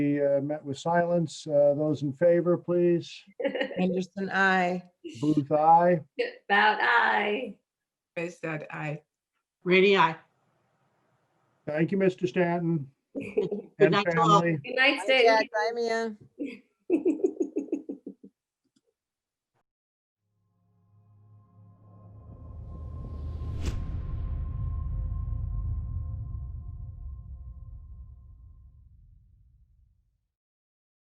be uh, met with silence. Uh, Those in favor, please. Anderson, I. Booth, aye. About I. Grace said aye. Rainy eye. Thank you, Mr. Stanton Good and night to all. family. night, Hi, Stan. Jack. Hi, Mia.